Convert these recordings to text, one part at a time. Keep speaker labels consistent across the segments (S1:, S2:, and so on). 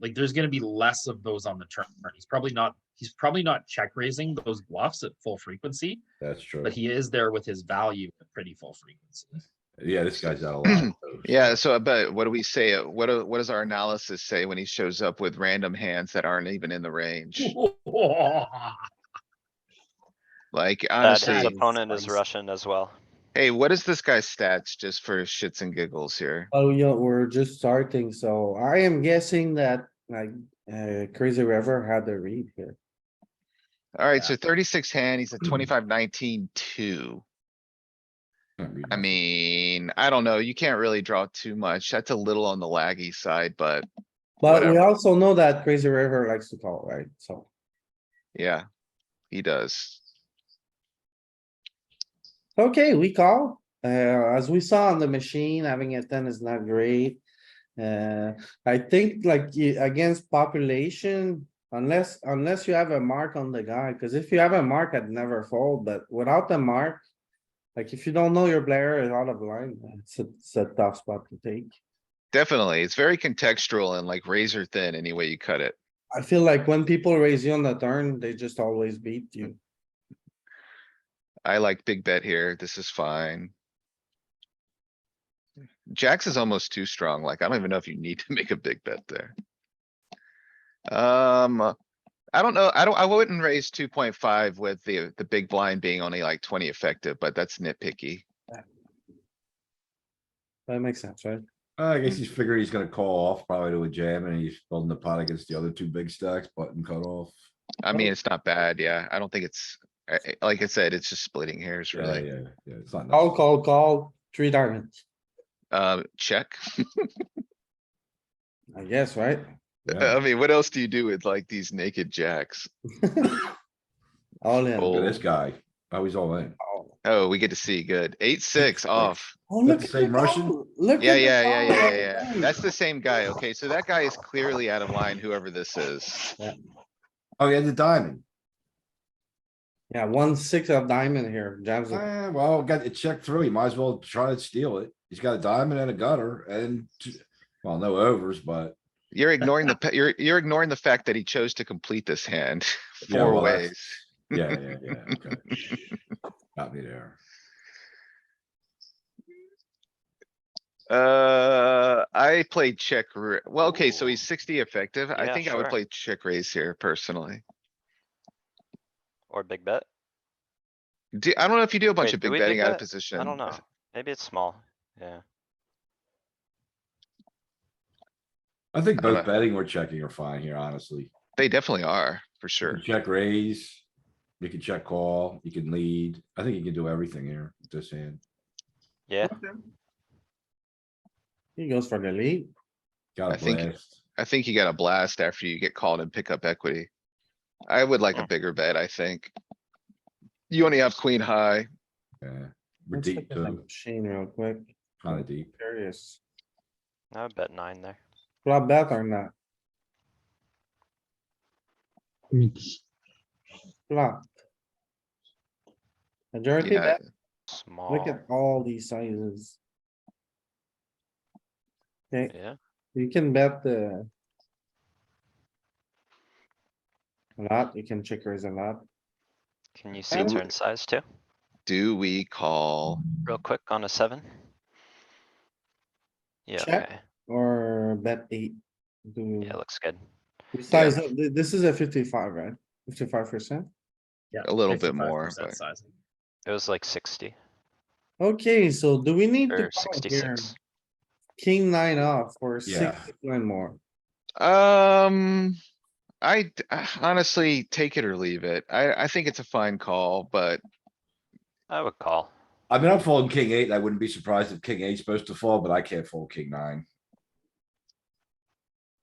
S1: Like there's going to be less of those on the turn. He's probably not. He's probably not check raising those bluffs at full frequency,
S2: That's true.
S1: but he is there with his value at pretty full frequency.
S2: Yeah, this guy's out a lot. of those.
S3: Yeah, so uh, but what do we say? uh, What do, what does our analysis say when he shows up with random hands that aren't even in the range? Like
S4: That his
S1: Nice.
S3: honestly,
S4: opponent is
S1: Nice.
S4: Russian as well.
S3: hey, what is this guy's stats just for shits and giggles here?
S5: Oh, yeah, we're just starting, so I am guessing that like uh Crazy River had the read here.
S3: Alright,
S1: Yeah.
S3: so thirty-six hand, he's a twenty-five, nineteen, two.
S2: Can't read
S3: I
S2: that.
S3: mean, I don't know, you can't really draw too much. That's a little on the laggy side, but
S5: But we
S3: Whatever.
S5: also know that Crazy River likes to call, right? So
S3: yeah, he does.
S5: Okay, we call. Uh, as we saw on the machine, having a ten is not great. Uh, I think like y- against population, unless, unless you have a mark on the guy, cuz if you have a mark, I'd never fold, but without the mark. Like if you don't know your player is out of line, it's a, it's a tough spot to take.
S3: Definitely, it's very contextual and like razor thin any way you cut it.
S5: I feel like when people raise you on the turn, they just always beat you.
S3: I like big bet here. This is fine. Jax is almost too strong. Like, I don't even know if you need to make a big bet there. Um, I don't know. I don't, I wouldn't raise two point five with the, the big blind being only like twenty effective, but that's nitpicky.
S5: That makes sense, right?
S2: I guess he's figuring he's gonna call off probably to a jam and he's building the pot against the other two big stacks, button cut off.
S3: I mean, it's not bad. Yeah, I don't think it's, I- I- like I said, it's just splitting hairs
S2: Yeah,
S3: really.
S2: yeah, yeah, it's not.
S5: Call,
S2: necessary.
S5: call, call, three diamonds,
S3: Uh, check.
S5: I guess, right?
S2: Yeah.
S3: I mean, what else do you do with like these naked jacks?
S5: All in.
S3: Fold.
S2: Look at this guy. Oh, he's all in.
S5: Oh,
S3: Oh, we get to see. Good. Eight, six off.
S5: look
S2: the
S5: at
S2: same Russian?
S5: call. Look
S3: Yeah,
S5: at the
S3: yeah, yeah,
S5: call.
S3: yeah, yeah, yeah. That's the same guy. Okay, so that guy is clearly out of line, whoever this is.
S2: Oh, he has a diamond.
S5: Yeah, one six of diamond here, jams. it.
S2: Eh, well, got it checked through. He might as well try to steal it. He's got a diamond and a gutter and, two- well, no overs, but.
S3: You're ignoring the, pa- you're, you're ignoring the fact that he chose to complete this hand
S2: yeah,
S3: four
S2: well, that's-
S3: ways.
S2: Yeah, yeah, yeah, okay. Got me there.
S3: Uh, I played check, ra- well, okay, so he's sixty effective. I
S4: Yeah,
S3: think I would
S4: sure.
S3: play check raise here personally.
S4: Or big bet.
S3: Do, I don't know if you do a bunch
S4: Wait,
S3: of
S4: do
S3: big
S4: we big
S3: betting out of
S4: bet?
S3: position.
S4: I don't know. Maybe it's small. Yeah.
S2: I think
S3: I don't
S2: both betting or checking are fine here, honestly.
S3: They definitely are, for
S2: You
S3: sure.
S4: Mm.
S2: can Check raise, you can check call, you can lead. I think you can do everything here, with this hand.
S4: Yeah.
S5: He goes for the lead.
S2: Got
S3: I
S2: a
S3: think-
S2: blast.
S3: I think you got a blast after you get called and pick up equity. I would like a
S4: Mm.
S3: bigger bet, I think. You only have queen high.
S2: Yeah, we're
S5: Let's look
S2: deep
S5: at the
S2: though,
S5: machine real quick,
S2: kinda deep.
S5: curious.
S4: I would bet nine there.
S5: Flop bet or not? Flop. Majority
S3: Yeah,
S5: bet,
S4: Small.
S5: look at all these sizes. Okay,
S4: Yeah.
S5: you can bet the. A lot, you can check raise a lot.
S4: Can you see
S3: And-
S4: turn size too?
S3: do we call?
S4: Real quick on a seven? Yeah,
S5: Check.
S4: okay.
S5: Or bet eight. Do,
S4: Yeah, looks good.
S5: we size up? Th- this is a fifty-five, right? Fifty-five percent?
S1: Yeah,
S3: A little bit more,
S1: 55%
S3: but-
S1: sizing.
S4: It was like sixty
S5: Okay, so do we need to
S4: or
S5: call here?
S4: sixty-six.
S5: King nine off or six
S2: Yeah.
S5: nine more?
S3: Um, I d- uh, honestly take it or leave it. I, I think it's a fine call, but
S4: I would call.
S2: I mean, I'm folding king eight. and I wouldn't be surprised if king eight's supposed to fall, but I can't fold king nine.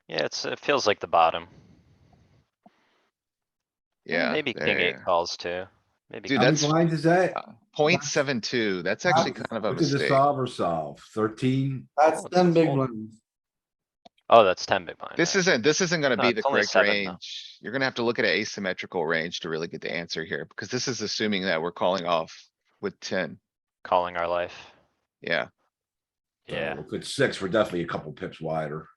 S4: Yeah, it's, it feels like the bottom.
S3: yeah. eh,
S4: Maybe
S3: there
S4: king
S3: you
S4: eight
S3: go.
S4: calls too. Maybe.
S3: Dude,
S2: How
S4: king-
S2: many
S3: that's-
S2: blinds is that?
S3: Point seven two, that's
S5: How-
S3: actually kind of a
S2: What did the
S3: mistake.
S2: solve or solve? Thirteen?
S5: That's
S4: Oh,
S5: ten
S4: that's
S5: big
S4: all.
S5: ones.
S4: Oh, that's ten big blind.
S3: This
S4: right.
S3: isn't, this isn't gonna
S4: No,
S3: be
S4: it's
S3: the
S4: only
S3: correct
S4: seven, though.
S3: range. You're gonna have to look at an asymmetrical range to really get the answer here, because this is assuming that we're calling off with ten.
S4: Calling our life.
S3: Yeah,
S2: So
S4: Yeah.
S2: Oh, If it's six, we're definitely a couple pips wider.